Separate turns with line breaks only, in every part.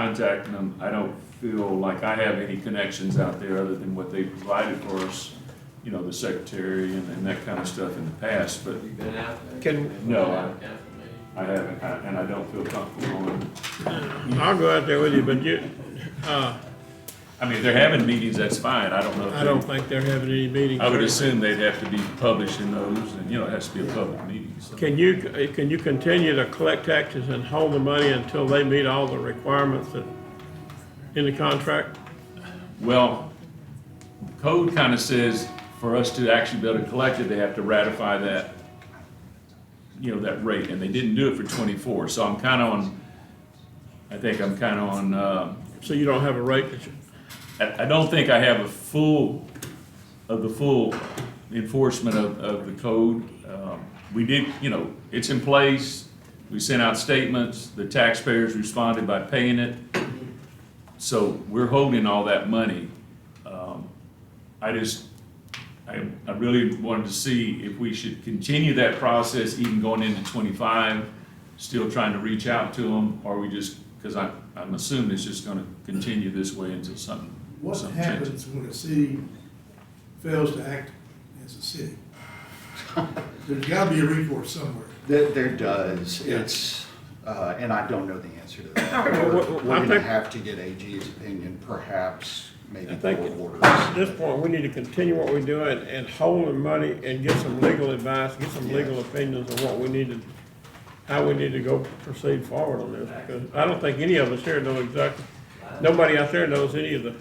contacting them, I don't feel like I have any connections out there other than what they provided for us, you know, the secretary and, and that kind of stuff in the past, but
Have you been out there?
Can-
No, I-
Out there for me?
I haven't, I- and I don't feel comfortable going.
I'll go out there with you, but you, uh,
I mean, if they're having meetings, that's fine, I don't know. if
I
they-
don't think they're having any meetings.
I would assume they'd have to be publishing those, and, you know, it has to be a public meeting, so.
Can you, can you continue to collect taxes and hold the money until they meet all the requirements that, in the contract?
Well, code kind of says for us to actually be able to collect it, they have to ratify that, you know, that rate, and they didn't do it for twenty-four, so I'm kind of on, I think I'm kind of on, um,
So you don't have a rate that you,
I, I don't think I have a full, of the full enforcement of, of the code. Um, We did, you know, it's in place, we sent out statements, the taxpayers responded by paying it. So we're holding all that money. Um, I just, I, I really wanted to see if we should continue that process even going into twenty-five, still trying to reach out to them, or we just, because I, I'm assuming it's just gonna continue this way until something,
What
something changes.
happens when a city fails to act as a city? There's gotta be a recourse somewhere.
There, there does,
Yeah.
it's, uh, and I don't know the answer to that.
Well,
We're
well,
we're
I
gonna
think-
have to get AG's opinion, perhaps, maybe
I think
court
at
orders.
this point, we need to continue what we're doing and hold the money and get some legal advice, get some legal opinions on what we need to, how we need to go proceed forward on this, because I don't think any of us here know exactly, nobody out there knows any of the,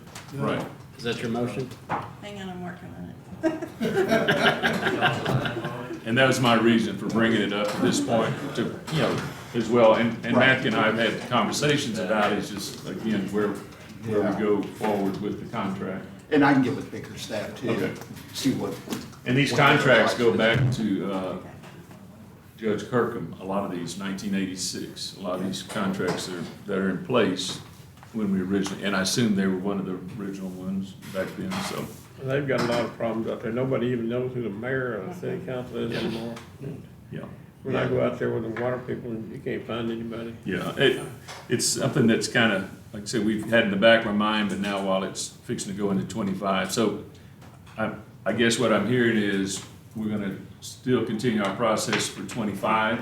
Right.
Is that your motion?
Hang on, I'm working on it.
And that was my reason for bringing it up at this point to, you know, as well. And, and Matthew and I have had conversations about it, it's just, again, where, where we
Yeah.
go forward with the contract.
And I can get with Bickerstaff
Okay.
too, see what.
And these
what their
contracts go
advice
back
is.
to, uh, Judge Kirkham, a lot of these, nineteen eighty-six, a lot of these contracts that are, that are in place when we originally, and I assume they were one of the original ones back then, so.
they've got a lot of problems out there, nobody even knows who the mayor or the city council is anymore.
Yeah,
When I go out there with the water people, you can't find anybody.
yeah, it, it's something that's kind of, like I said, we've had in the back of our mind, but now while it's fixing to go into twenty-five, so I, I guess what I'm hearing is, we're gonna still continue our process for twenty-five,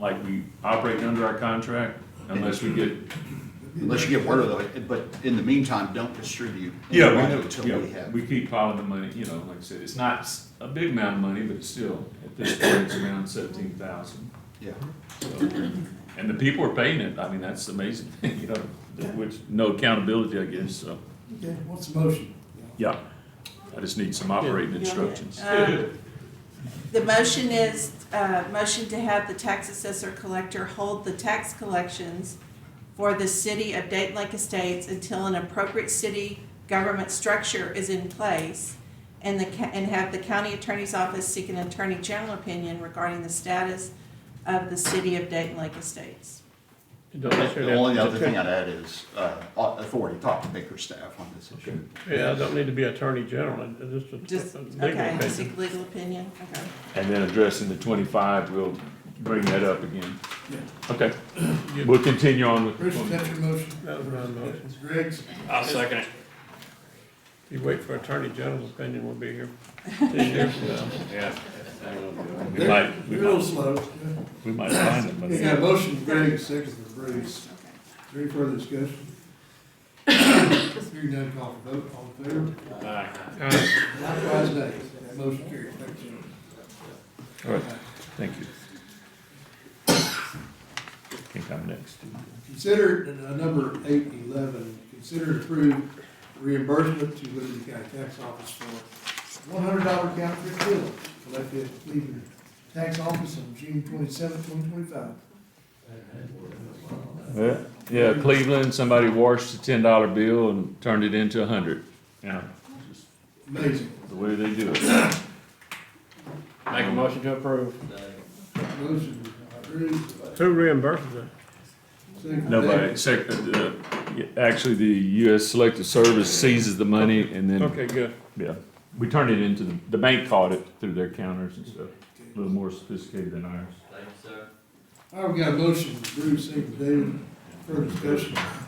like we operate under our contract, unless we get,
Unless you get word of it, but in the meantime, don't distribute.
yeah, we,
anything
know-
Until we
yeah,
have.
we keep piling the money, you know, like I said, it's not s- a big amount of money, but it's still, at this point, it's around seventeen thousand.
Yeah.
And the people are paying it, I mean, that's amazing, you know, which, no accountability, I guess, so,
Okay, what's the motion?
yeah. I just need some operating instructions.
Um, The motion is, uh, motion to have the tax assessor collector hold the tax collections for the city of Dayton Lake Estates until an appropriate city government structure is in place and the, ca- and have the county attorney's office seek an attorney general opinion regarding the status of the city of Dayton Lake Estates.
The only other thing I'd add is, uh, au- authority, talk to Bickerstaff on this issue.
Yeah, I don't need to be attorney general, it's just
Just,
a legal
okay,
opinion.
seek legal opinion, okay.
And then addressing the twenty-five, we'll bring that up again. Okay, we'll continue on with. the
Richard, is that your motion?
That was my motion.
That's Greg's.
I'll second it.
You wait for attorney general's opinion, we'll be here. ten years from now.
We might, we
Real
might,
slow.
we might find it, but.
You got a motion, Greg, second from Bruce. Is there any further discussion? Hearing none, call for vote, all in favor?
Uh,
Likewise, nay. That motion carries. Thank you.
All right, thank you. I think I'm next.
Consider, uh, number eight eleven, consider and approve reimbursement to Liberty County Tax Office for one hundred dollar counterfeit bill collected at Cleveland Tax Office on June twenty-seventh, twenty twenty-five.
Yeah, yeah, Cleveland, somebody washed a ten dollar bill and turned it into a hundred. Yeah,
Amazing.
the way they do it.
Make a motion to approve.
Motion approved.
Who reimburses it?
Second.
Nobody, sec, uh, yeah, actually, the US Selective Service seizes the money and then,
Okay, good.
yeah. We turn it into, the, the bank caught it through their counters and stuff, a little more sophisticated than ours.
Thank you, sir.
All right, we got a motion, Bruce, second, David, further discussion.